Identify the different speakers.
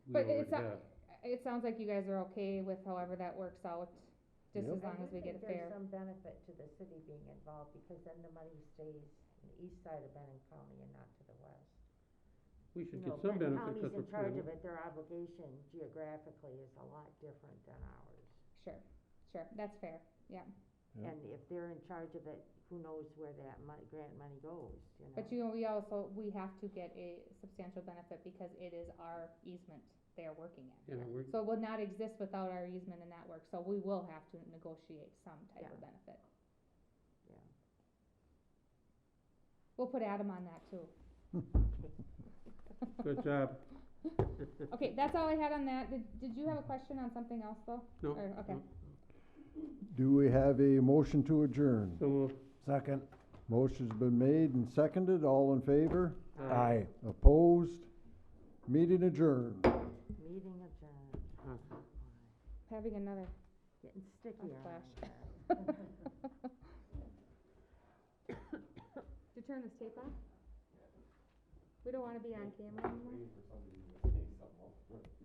Speaker 1: But
Speaker 2: we would
Speaker 1: it's not-
Speaker 2: have.
Speaker 1: It sounds like you guys are okay with however that works out, just
Speaker 2: Yep.
Speaker 1: as long as we get a fair.
Speaker 3: I do think there's some benefit to the city being involved, because then the money stays in the east side of Benton County and not to the west.
Speaker 2: We should
Speaker 3: You
Speaker 2: get
Speaker 3: know,
Speaker 2: some
Speaker 3: Benton
Speaker 2: benefit because
Speaker 3: County's
Speaker 2: we're
Speaker 3: in charge
Speaker 2: planning.
Speaker 3: of it, their obligation geographically is a lot different than ours.
Speaker 1: Sure, sure, that's fair, yeah.
Speaker 2: Yeah.
Speaker 3: And if they're in charge of it, who knows where that money, grant money goes, you know?
Speaker 1: But you know, we also, we have to get a substantial benefit because it is our easement they are working in.
Speaker 2: Yeah, we're,
Speaker 1: So it would not exist without our easement and that work, so we will have to negotiate some type of benefit.
Speaker 3: Yeah.
Speaker 1: We'll put Adam on that too.
Speaker 2: good job.
Speaker 1: Okay, that's all I had on that. Did, did you have a question on something else though?
Speaker 2: No,
Speaker 1: Or- okay.
Speaker 2: no.
Speaker 4: Do we have a motion to adjourn?
Speaker 2: So we'll.
Speaker 5: Second.
Speaker 4: Motion's been made and seconded, all in favor?
Speaker 2: uh,
Speaker 4: Opposed? Meeting adjourned.
Speaker 3: Meeting adjourned.
Speaker 2: Huh.
Speaker 3: Uh-huh.
Speaker 1: Having another
Speaker 3: Getting sticky on
Speaker 1: flash.
Speaker 3: that.
Speaker 1: Did you turn this tape on? We don't wanna be on camera anymore.